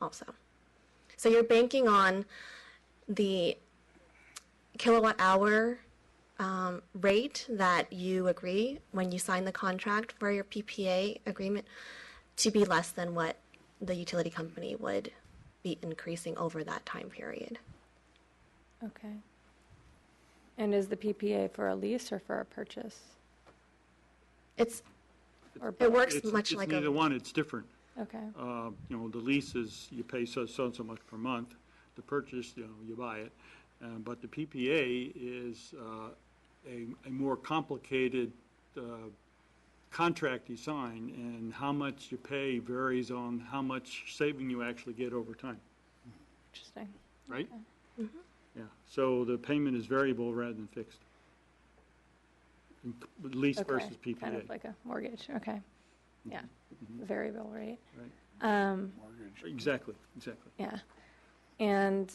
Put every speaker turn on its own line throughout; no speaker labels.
also. So you're banking on the kilowatt hour um, rate that you agree when you sign the contract for your PPA agreement to be less than what the utility company would be increasing over that time period.
Okay. And is the PPA for a lease or for a purchase?
It's,
Or
it
both?
works
It's-
much like
It's neither
a,
one, it's different.
Okay,
Uh, You know, the lease is, you pay so, so and so much per month. The purchase, you know, you buy it. Uh, But the PPA is uh, a, a more complicated uh, contract you sign, and how much you pay varies on how much saving you actually get over time,
interesting.
right? Mm-hmm. Yeah, so the payment is variable rather than fixed. In- Lease
Okay,
versus PPA.
Kind of like a mortgage, okay. Yeah, variable rate.
Right.
Um,
Exactly, exactly.
yeah. And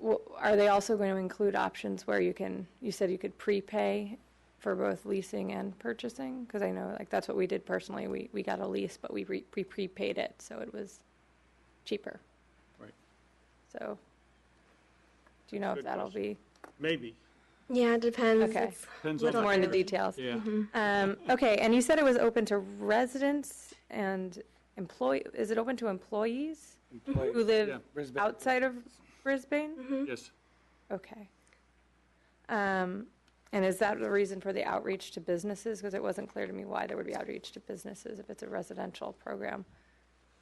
w- are they also going to include options where you can, you said you could prepay for both leasing and purchasing? Because I know, like, that's what we did personally. We, we got a lease, but we re- we prepaid it, so it was cheaper.
Right.
So, do you know if
Good
that'll be?
Maybe.
yeah, it depends.
Okay.
It's-
Depends on.
Little
More in the
area.
details.
Yeah.
Um, okay, and you said it was open to residents and employ, is it open to employees who live
Brisbane.
outside of Brisbane?
Yes,
Okay. Um, and is that the reason for the outreach to businesses? Because it wasn't clear to me why there would be outreach to businesses if it's a residential program.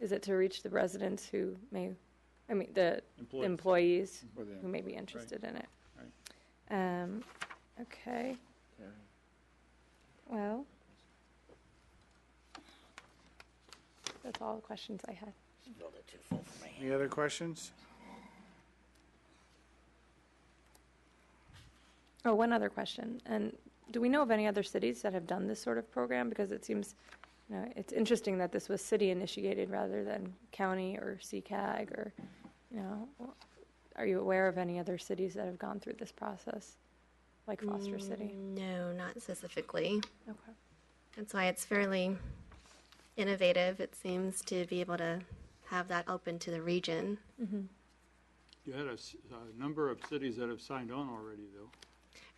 Is it to reach the residents who may, I mean, the
Employees.
employees
Or the
who may be interested in it? Um, okay, well. That's all the questions I had.
Any other questions?
Oh, one other question. And do we know of any other cities that have done this sort of program? Because it seems, you know, it's interesting that this was city initiated rather than county or CCAG or, you know, are you aware of any other cities that have gone through this process, like Foster City?
No, not specifically.
Okay.
That's why it's fairly innovative, it seems, to be able to have that open to the region.
you had a, s- a number of cities that have signed on already, though.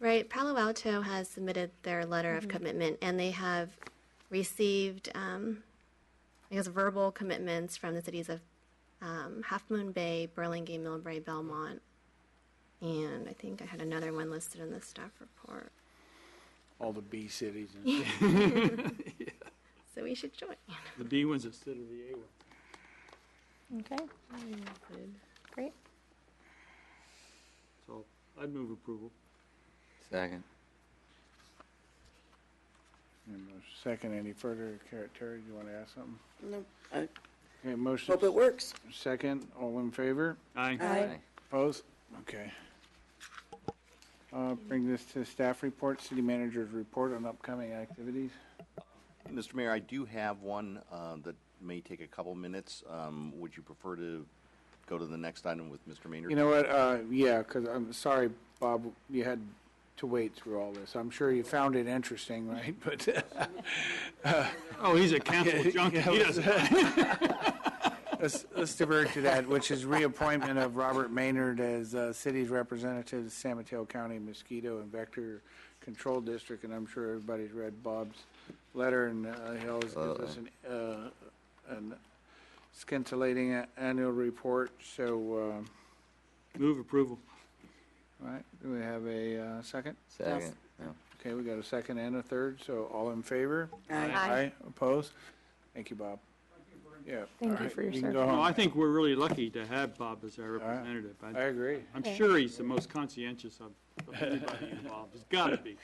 Right, Palo Alto has submitted their letter of commitment, and they have received, um, I guess, verbal commitments from the cities of um, Half Moon Bay, Burlingame, Millbrae, Belmont, and I think I had another one listed in the staff report.
All the B cities and
So we should join.
The B one's instead of the A one.
Okay, great.
So I'd move approval.
Second.
and a second, any further, Car- Terry, do you want to ask something?
No, I
Okay, motion,
hope it works.
second, all in favor?
Aye.
Aye.
Opposed? Okay. Uh, Bring this to staff report, city manager's report on upcoming activities.
Mr. Mayor, I do have one uh, that may take a couple minutes. Um, Would you prefer to go to the next item with Mr. Maynard?
You know what, uh, yeah, because I'm sorry, Bob, you had to wait through all this. I'm sure you found it interesting, right? But
Oh, he's a council junkie. He doesn't.
Let's, let's divert to that, which is reappointment of Robert Maynard as uh, city's representative to San Mateo County Mosquito and Vector Control District, and I'm sure everybody's read Bob's letter, and uh, he always gives us an, uh, an scintillating a- annual report, so,
Move approval.
uh, all right, do we have a uh, second?
Second. No.
Okay, we got a second and a third, so all in favor?
Aye.
Aye. Opposed? Thank you, Bob. Yeah.
Thank
all
you
right,
for your
can go
service.
No,
home.
I think we're really lucky to have Bob as our representative.
I
I-
agree.
I'm sure he's the most conscientious of of anybody involved. It's got to be.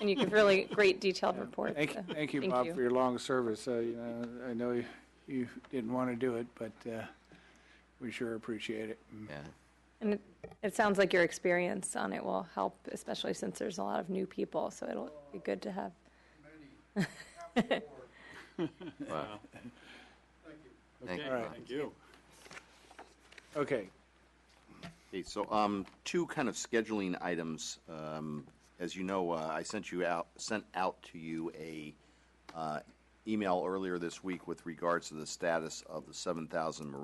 And you give really great detailed reports.
Thank,
so
thank you,
Uh, thank
Bob,
you.
for your long service. Uh, you know, I know you, you didn't want to do it, but, uh, we sure appreciate it.
Yeah.
And it, it sounds like your experience on it will help, especially since there's a lot of new people, so it'll be good to have.
Wow. Thank
Okay,
you.
right.
thank you.
Okay,
Okay, so um, two kind of scheduling items. Um, As you know, uh, I sent you out, sent out to you a uh, email earlier this week with regards to the status of the 7,000 Marine